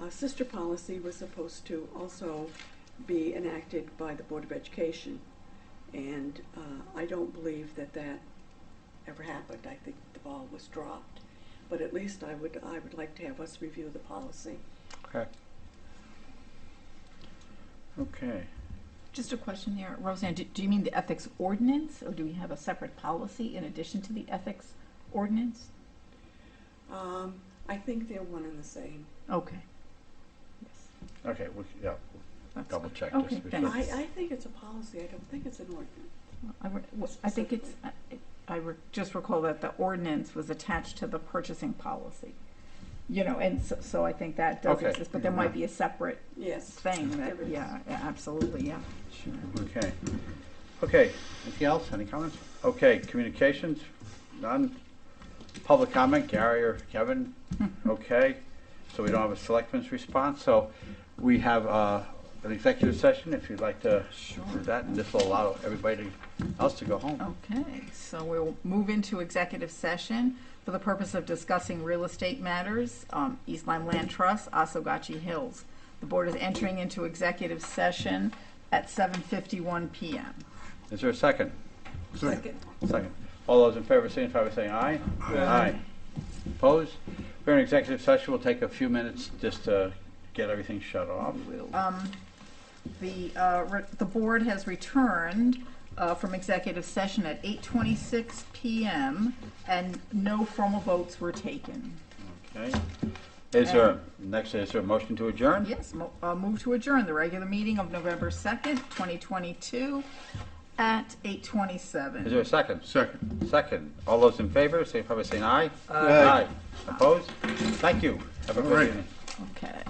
Uh, sister policy was supposed to also be enacted by the Board of Education. And uh, I don't believe that that ever happened. I think the ball was dropped. But at least I would, I would like to have us review the policy. Okay. Okay. Just a question there, Roseanne, do, do you mean the ethics ordinance, or do we have a separate policy in addition to the ethics ordinance? Um, I think they're one and the same. Okay. Yes, Okay. We, yeah. that's Double good. check Okay, just before- I, thanks. I think it's a policy. I don't think it's an ordinance. I re- w- I think it's, I- I re- just recall that the ordinance was attached to the purchasing policy. You know, and so, so I think that does Okay. exist, but there might be a separate Yes. thing that, There is. yeah, a- absolutely, yeah, sure. Okay. Okay. Anything else? Any comments? Okay. Communications. None. Public comment. Gary or Kevin. Okay. So we don't have a selectman's response. So we have uh, an executive session. If you'd like to Sure. Oh. do that, and this will allow everybody else to go home. Okay, so we'll move into executive session for the purpose of discussing real estate matters, um, East Lyme Land Trust, Osagachi Hills. The board is entering into executive session at seven fifty-one PM. Is there a second? Second. Second. All those in favor signify by saying aye. Aye. Opposed? We're in executive session. We'll take a few minutes just to get everything shut off. Um, The, uh, re- the board has returned uh, from executive session at eight twenty-six PM, and no formal votes were taken. Okay. Is there, next, is there a motion to adjourn? Yes, mo- uh, move to adjourn the regular meeting of November 2nd, 2022 at Is 8:27. there a second? Second. Second. All those in favor signify by saying aye. Aye. Opposed? Thank you. Have a All right. good evening. Okay.